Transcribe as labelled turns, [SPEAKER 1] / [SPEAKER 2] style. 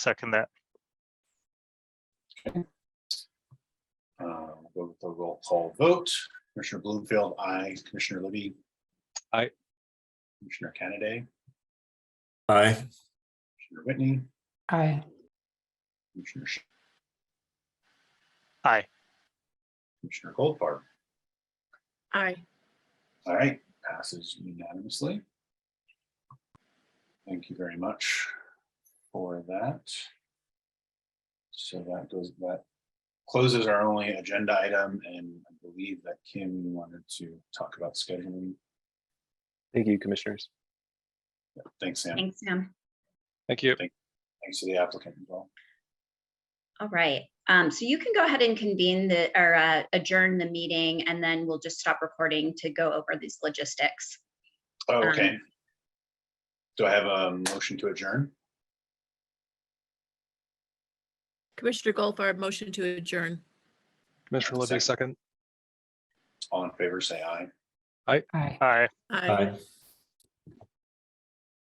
[SPEAKER 1] second that.
[SPEAKER 2] Uh, Go with the roll call vote. Commissioner Bloomfield, aye. Commissioner Libby.
[SPEAKER 3] Aye.
[SPEAKER 2] Commissioner Kennedy,
[SPEAKER 4] Aye.
[SPEAKER 2] Commissioner Whitney,
[SPEAKER 5] Aye.
[SPEAKER 2] Commissioner. Sh-
[SPEAKER 1] Aye.
[SPEAKER 2] Commissioner Goldfarb.
[SPEAKER 6] Aye.
[SPEAKER 2] All right, passes unanimously. Thank you very much for that. So that goes, that closes our only agenda item, and I believe that Kim you wanted to talk about scheduling.
[SPEAKER 3] Thank you, commissioners.
[SPEAKER 2] Thanks, Sam.
[SPEAKER 7] Thanks, Sam.
[SPEAKER 3] Thank you.
[SPEAKER 2] Thanks to the applicant as well.
[SPEAKER 7] All right. Um, so you can go ahead and convene the, or uh, adjourn the meeting and then we'll just stop recording to go over these logistics.
[SPEAKER 2] Oh,
[SPEAKER 7] Um,
[SPEAKER 2] Okay. Do I have a motion to adjourn?
[SPEAKER 6] Commissioner Goldfarb, motion to adjourn.
[SPEAKER 3] Commissioner Libby,
[SPEAKER 2] Second.
[SPEAKER 3] second.
[SPEAKER 2] All in favor, say aye.
[SPEAKER 5] Aye.
[SPEAKER 1] Aye.
[SPEAKER 6] Aye.